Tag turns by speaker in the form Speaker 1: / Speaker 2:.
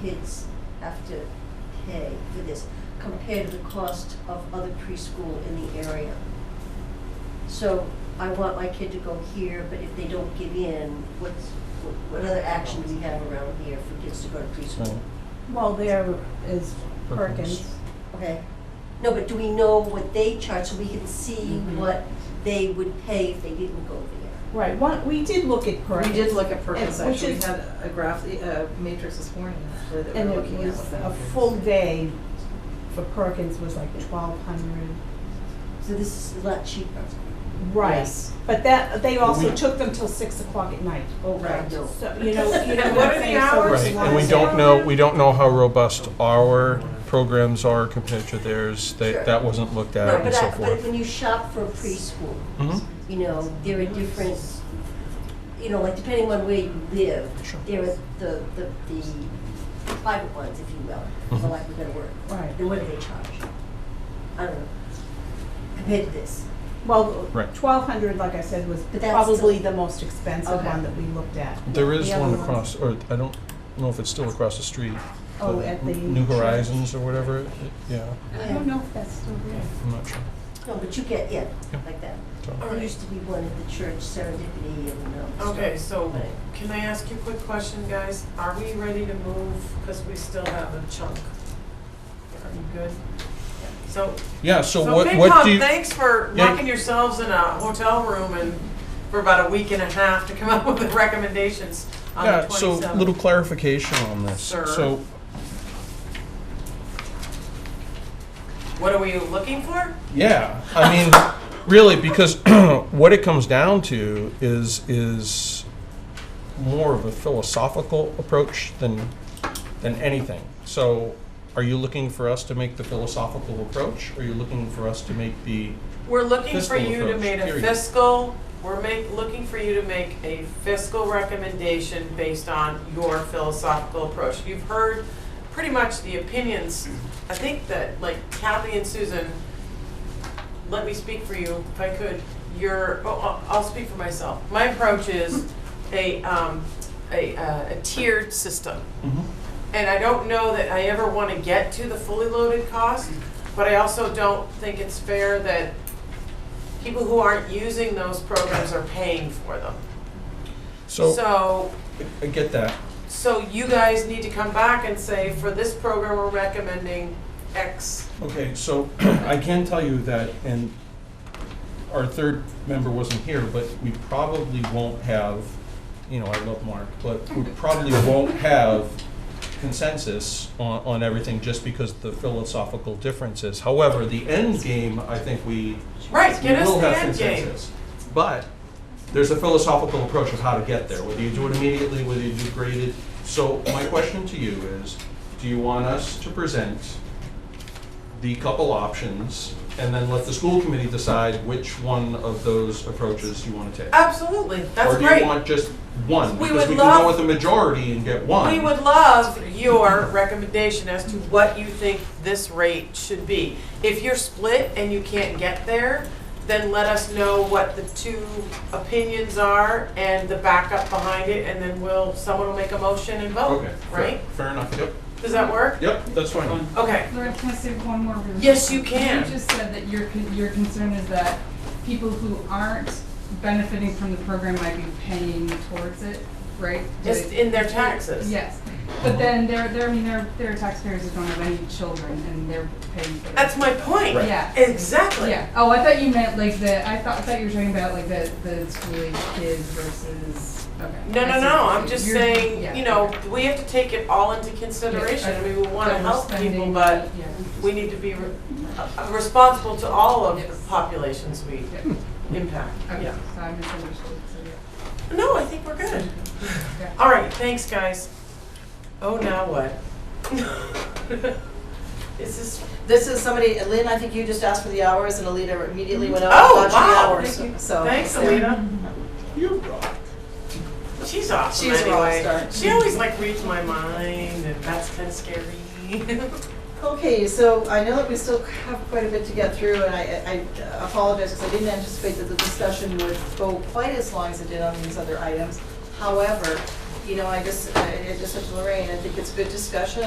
Speaker 1: kids have to pay for this compared to the cost of other preschool in the area. So I want my kid to go here, but if they don't give in, what's, what- what other action do we have around here for kids to go to preschool?
Speaker 2: Hmm.
Speaker 3: Well, there is
Speaker 2: Perkins.
Speaker 3: Perkins.
Speaker 1: Okay, no, but do we know what they charge so we can see
Speaker 4: Mhm.
Speaker 1: what they would pay if they didn't go there?
Speaker 3: Right, one, we did look at
Speaker 4: We
Speaker 3: Perkins.
Speaker 4: did look at Perkins,
Speaker 3: And- which
Speaker 4: actually, we
Speaker 3: is-
Speaker 4: had a graph, e, a matrix this morning, actually, that
Speaker 3: And
Speaker 4: we were
Speaker 3: it
Speaker 4: looking at.
Speaker 3: was
Speaker 4: what
Speaker 3: a
Speaker 4: happens.
Speaker 3: full day for Perkins was like twelve hundred.
Speaker 1: So this is a lot cheaper.
Speaker 3: Right,
Speaker 4: Yes.
Speaker 3: but that, they also
Speaker 2: We-
Speaker 3: took them till six o'clock at night.
Speaker 1: Oh,
Speaker 4: Right.
Speaker 1: God, no.
Speaker 3: So, you know, you
Speaker 4: What
Speaker 3: know what
Speaker 4: are
Speaker 3: I'm
Speaker 4: the
Speaker 3: saying? So
Speaker 4: hours?
Speaker 3: it's
Speaker 2: Right, and we
Speaker 3: one
Speaker 2: don't
Speaker 3: day.
Speaker 2: know, we don't know how robust our programs are compared to theirs.
Speaker 1: Sure.
Speaker 2: That, that wasn't looked
Speaker 1: No,
Speaker 2: at and
Speaker 1: but
Speaker 2: so
Speaker 1: I, but
Speaker 2: forth.
Speaker 1: when you shop for preschool,
Speaker 2: Mhm.
Speaker 1: you know, there are different, you know, like depending on where you live,
Speaker 2: Sure.
Speaker 1: there are the, the, the private ones, if you will, for
Speaker 2: Mhm.
Speaker 1: lack of a better word.
Speaker 3: Right.
Speaker 1: And what do they charge? I don't know, compared to this.
Speaker 3: Well,
Speaker 2: Right.
Speaker 3: twelve hundred, like I said, was
Speaker 1: But that's
Speaker 3: probably
Speaker 1: still-
Speaker 3: the most expensive
Speaker 1: Okay.
Speaker 3: one that we looked at.
Speaker 2: There is
Speaker 3: The other
Speaker 2: one
Speaker 3: ones-
Speaker 2: across, or I don't know if it's still across the street.
Speaker 3: Oh, at the-
Speaker 2: New Horizons or whatever, it- yeah,
Speaker 3: I don't know if that's still there.
Speaker 2: I'm not sure.
Speaker 1: No, but you get, yeah,
Speaker 2: Yeah.
Speaker 1: like that.
Speaker 2: So,
Speaker 1: There used to be one at the church, Serendipity and, um. stuff.
Speaker 5: Okay, so
Speaker 1: Right.
Speaker 5: can I ask you a quick question, guys? Are we ready to move? Because we still have a chunk. Are you good? So,
Speaker 2: Yeah, so
Speaker 5: so
Speaker 2: what,
Speaker 5: big
Speaker 2: what
Speaker 5: hug,
Speaker 2: do you?
Speaker 5: thanks for
Speaker 2: Yeah.
Speaker 5: locking yourselves in a hotel room and for about a week and a half to come up with the recommendations on the
Speaker 2: Yeah, so
Speaker 5: 27th.
Speaker 2: little clarification on this.
Speaker 5: Sir.
Speaker 2: So
Speaker 5: What are we looking for?
Speaker 2: Yeah, I mean, really, because what it comes down to is is more of a philosophical approach than than anything. So, are you looking for us to make the philosophical approach? Or are you looking for us to make the
Speaker 5: We're looking for
Speaker 2: Fiscal
Speaker 5: you to
Speaker 2: approach,
Speaker 5: make a
Speaker 2: period.
Speaker 5: fiscal, we're make, looking for you to make a fiscal recommendation based on your philosophical approach. You've heard pretty much the opinions, I think that, like Kathy and Susan, let me speak for you, if I could, your, oh, I'll- I'll speak for myself. My approach is a, um, a, uh, a tiered system. And I don't know that I ever want to get to the fully loaded cost, but I also don't think it's fair that people who aren't using those programs are paying for them.
Speaker 2: so,
Speaker 5: So,
Speaker 2: I get that.
Speaker 5: so you guys need to come back and say, for this program, we're recommending X.
Speaker 2: Okay, so I can tell you that, and our third member wasn't here, but we probably won't have, you know, I love Mark, but we probably won't have consensus on, on everything just because the philosophical differences. However, the end game, I think we
Speaker 5: Right,
Speaker 2: we
Speaker 5: get us
Speaker 2: will
Speaker 5: the
Speaker 2: have
Speaker 5: end game.
Speaker 2: consensus. But there's a philosophical approach of how to get there, whether you do it immediately, whether you do graded. So my question to you is, do you want us to present the couple options and then let the school committee decide which one of those approaches you want to take?
Speaker 5: Absolutely, Uh, that's
Speaker 2: Or do
Speaker 5: great.
Speaker 2: you want just one?
Speaker 5: We
Speaker 2: Because
Speaker 5: would
Speaker 2: we can
Speaker 5: love-
Speaker 2: go with the majority and get one.
Speaker 5: We would love your recommendation as to what you think this rate should be. If you're split and you can't get there, then let us know what the two opinions are and the backup behind it, and then we'll, someone will make a motion and vote,
Speaker 2: Okay, fair-
Speaker 5: right?
Speaker 2: fair enough, yep,
Speaker 5: Does that work?
Speaker 2: yep, that's fine.
Speaker 5: Okay,
Speaker 6: Laura, can I say one more? really
Speaker 5: Yes,
Speaker 6: quick?
Speaker 5: you can.
Speaker 6: You just said that your, con- your concern is that people who aren't benefiting from the program might be paying towards it, right?
Speaker 5: just
Speaker 6: Did-
Speaker 5: in their taxes.
Speaker 6: Yes, but then there, there, I mean, there, there are taxpayers who don't have any children and they're paying for it.
Speaker 5: That's my point.
Speaker 2: Right.
Speaker 6: Yeah,
Speaker 5: Exactly.
Speaker 6: yeah. Oh, I thought you meant like the, I thought, I thought you were talking about like the, the school age kids versus, okay.
Speaker 5: No,
Speaker 6: I
Speaker 5: no,
Speaker 6: see.
Speaker 5: no, I'm just
Speaker 6: You're- yeah,
Speaker 5: saying, you know,
Speaker 6: okay.
Speaker 5: we have to take it all into
Speaker 6: Yeah,
Speaker 5: consideration.
Speaker 6: I-
Speaker 5: We would want to
Speaker 6: that we're
Speaker 5: help people,
Speaker 6: spending-
Speaker 5: but
Speaker 6: yeah.
Speaker 5: we need to be re- uh, responsible to all of
Speaker 6: Yes.
Speaker 5: the populations we
Speaker 6: Yeah.
Speaker 5: impact.
Speaker 6: Okay,
Speaker 5: Yeah.
Speaker 6: so I misunderstood, so yeah.
Speaker 5: No, I think we're good.
Speaker 6: Okay.
Speaker 5: All right, thanks, guys. Oh, now what? Is this,
Speaker 7: This is somebody, Lynn, I think you just asked for the hours and Alita
Speaker 4: Mm-hmm.
Speaker 7: immediately went
Speaker 5: Oh,
Speaker 7: out and
Speaker 5: wow.
Speaker 7: watched the Uh, hours, so.
Speaker 5: thanks,
Speaker 7: there.
Speaker 5: Alina.
Speaker 2: You rock.
Speaker 5: She's awesome
Speaker 7: She's a rock
Speaker 5: anyway.
Speaker 7: star.
Speaker 5: She always like reads my mind and that's kind of scary.
Speaker 7: Okay, so I know that we still have quite a bit to get through and I, I apologize because I didn't anticipate that the discussion would go quite as long as it did on these other items. However, you know, I just, I I just said to Lorraine, I think it's good discussion,